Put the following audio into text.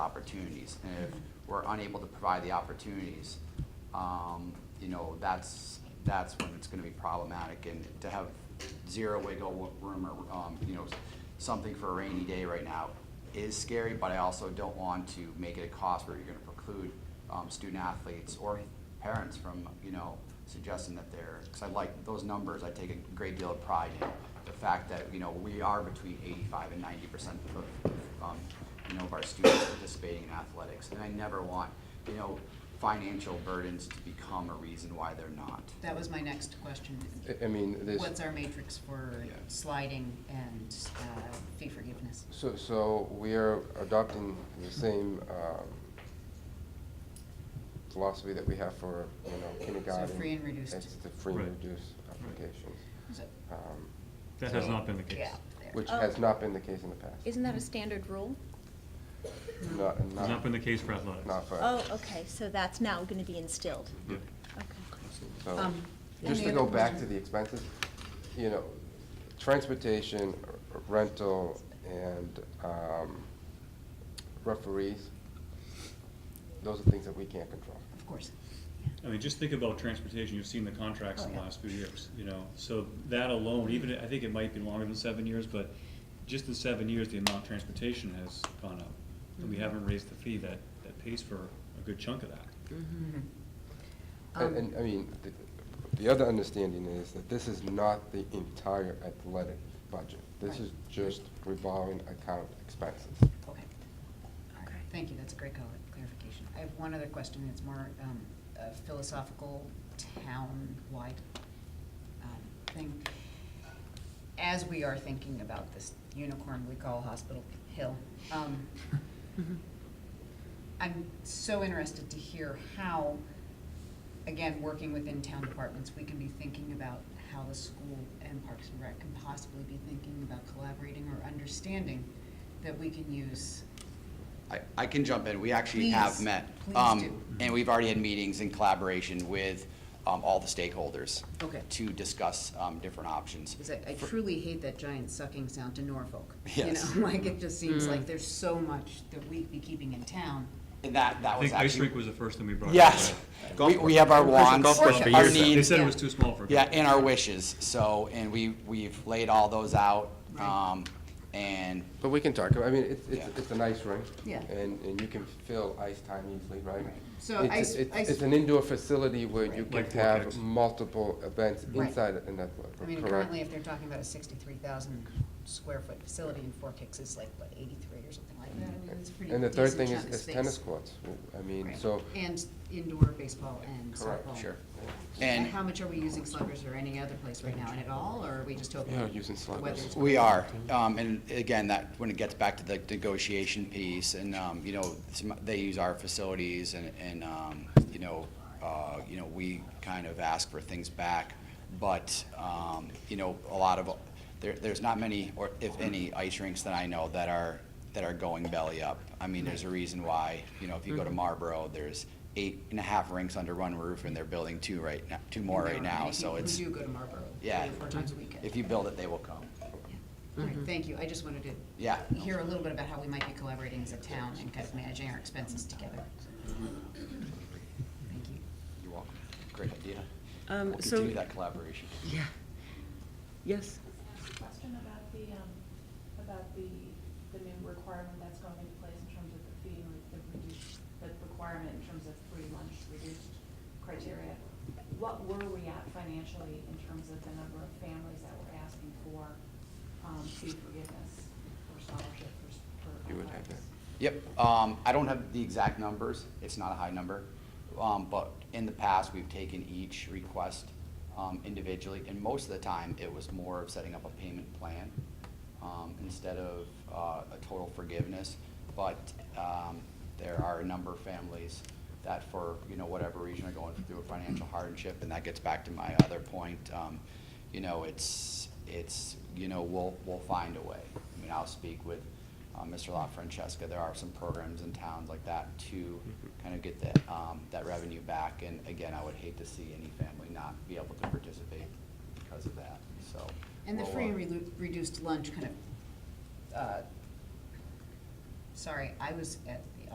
opportunities. And if we're unable to provide the opportunities, um, you know, that's, that's when it's gonna be problematic. And to have zero wiggle room or, um, you know, something for a rainy day right now is scary, but I also don't want to make it a cost where you're gonna preclude, um, student athletes or parents from, you know, suggesting that they're, because I like those numbers, I take a great deal of pride in the fact that, you know, we are between eighty-five and ninety percent of, um, you know, of our students participating in athletics. And I never want, you know, financial burdens to become a reason why they're not. That was my next question. I- I mean, there's, What's our matrix for Yeah. sliding and uh, fee forgiveness? so, so we are adopting the same um, philosophy that we have for, you know, kindergarten. free and reduced. It's the free and Right. reduced applications, Is it- um, That has not been the case. Yeah, there. which Oh. has not been the case in the past. Isn't that a standard rule? Not, Has not been the case for athletics. Not for. Oh, okay, so that's now gonna be instilled. Yeah. Okay. So, Um, just any to go other back to question? the expenses, you know, transportation, r- rental, and um, referees, those are things that we can't control. Of course. I mean, just think about transportation, you've seen the contracts in the Oh, yeah. last few years, you know, so that alone, even, I think it might be longer than seven years, but just in seven years, the amount of transportation has gone up, and Mm-hmm. we haven't raised the fee that, that pays for a good chunk of that. Um, And, and, I mean, the, the other understanding is that this is not the entire athletic budget. This Right. is just revolving account expenses. Okay. All right. Thank you, that's a great col- clarification. I have one other question, it's more um, a philosophical, town-wide um, thing. As we are thinking about this unicorn we call Hospital Hill, um, I'm so interested to hear how, again, working within town departments, we can be thinking about how the school and Parks and Rec can possibly be thinking about collaborating or understanding that we can use. I, I can jump in. We actually have Please, met. please um, do. And we've already had meetings in collaboration with um, all the stakeholders. Okay. To discuss um, different options. Because I, I truly hate that giant sucking sound to Norfolk. Yes. You know, like, it just seems like there's so much that we'd be keeping in town. And that, that I was think ice actually. rink was the first thing we brought up. Yes. right? We, we have our wants, Golf club for our years now. They needs. said it was too small for. a golf Yeah, club. and our wishes, so, and we, we've laid all those out, Right. um, and, But we can talk, about I mean, it's, it's, Yeah. it's an ice rink. Yeah. And, and you can fill ice time easily, right? Right. So It's- ice- it's- ice- It's an indoor facility where you Right. can Like have Vortex. multiple events Right. inside an athletic, I mean, correct? currently, if they're talking about a sixty-three thousand square foot facility in Four Kicks, it's like, what, eighty-three or something like that? I mean, it's a pretty And the third decent thing is, chunk of is space. tennis courts, I mean, Right. so, And indoor baseball and Correct, softball. sure. And And how much are we using Sluggers or any other place right now, and at all, or are we just hoping? Yeah, using the Sluggers. weather's we good? are, um, and again, that, when it gets back to the negotiation piece, and, um, you know, some, they use our facilities and, and, um, you know, uh, you know, we kind of ask for things back, but, um, you know, a lot of, there, there's not many, or if any, ice rinks that I know that are, that are going belly up. I mean, there's a reason why, you know, if you go to Marlboro, there's eight and a half rinks under one roof, and they're building two right now, two more right now, And so people it's. Who do go to Marlboro three Yeah. or four times a weekend. If you build it, they will come. All right, thank you, I just wanted to. Yeah. Hear a little bit about how we might be collaborating as a town and kind of managing our expenses together. Thank you. You're welcome. Great idea. Um, We'll so- continue that collaboration. Yeah. Yes, Question about the, um, about the, the new requirement that's going into place in terms of the fee, like the reduced, the requirement in terms of free lunch, reduced criteria. What were we at financially in terms of the number of families that were asking for, um, fee forgiveness or scholarship for, s- for You would have athletics? Yep, um, I don't have the exact numbers, it's not a high number, um, but in the past, we've taken each request, um, individually, and most of the time, it was more of setting up a payment plan, um, instead of, uh, a total forgiveness, but, um, there are a number of families that for, you know, whatever reason are going through a financial hardship, and that gets back to my other point, um, you know, it's, it's, you know, we'll, we'll find a way. I mean, I'll speak with, uh, Mr. La Francesca, there are some programs in towns like that to kind of get that, um, that revenue back. And again, I would hate to see any family not be able to participate because of that, so. And the we'll, free uh, and relu- reduced lunch kind of, uh, sorry, I was at